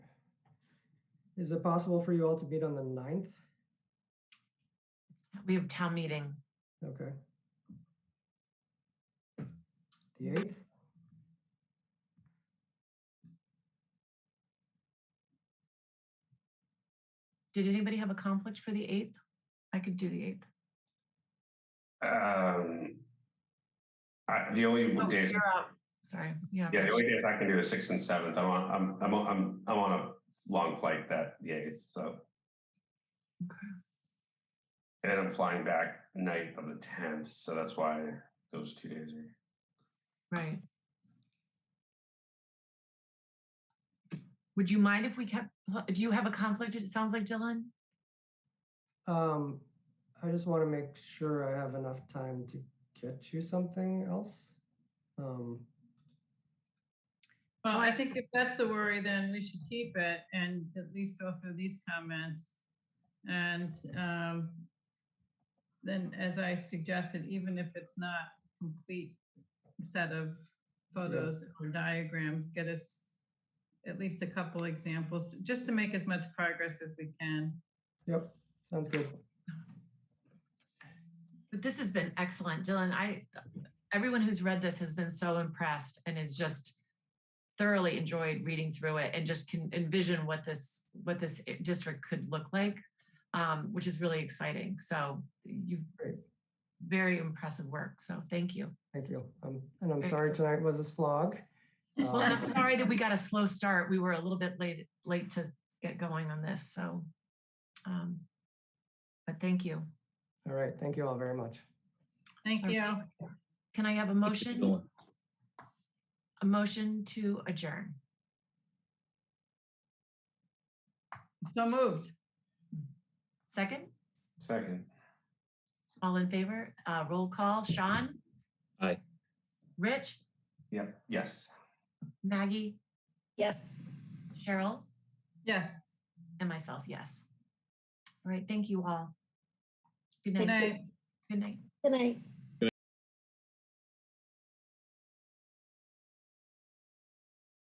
Is it possible for you all to meet on the ninth? We have town meeting. Okay. The eighth? Did anybody have a conflict for the eighth? I could do the eighth. Um, I, the only Oh, days, you're out. Sorry. Yeah. yeah, the Rich. only days I can do is six and seventh. I'm on, I'm, I'm, on- I'm, I'm on a long flight that the eighth, so. Okay. And I'm flying back night of the tenth, so that's why those two days are. Right. Would you mind if we kept, do you have a conflict? It sounds like Dylan. Um, I just want to make sure I have enough time to get you something else. Um, Well, I Well, think if that's the worry, then we should keep it and at least go through these comments. And um, then, as I suggested, even if it's not complete set of photos or diagrams, get us at least a couple examples, just to make as much progress as we can. yep, sounds good. But this has been excellent, Dylan. I, everyone who's read this has been so impressed and has just thoroughly enjoyed reading through it and just can envision what this, what this i- district could look like, um, which is really exciting. So you, Great. very impressive work. So thank you. Thank you. Um, and I'm Very sorry good. tonight was a slog. Well, and I'm Um, sorry that we got a slow start. We were a little bit late, late to get going on this, so. um But thank you. All right, thank you all very much. Thank you. Can I have a motion? A motion to adjourn. So moved. Second, Second, all in favor, Uh roll call, Sean? Aye. Rich, yep, yes. Maggie, Yes. Cheryl, Yes. and myself, yes. All right, thank you all. Good Good night. night. Good night. Good night.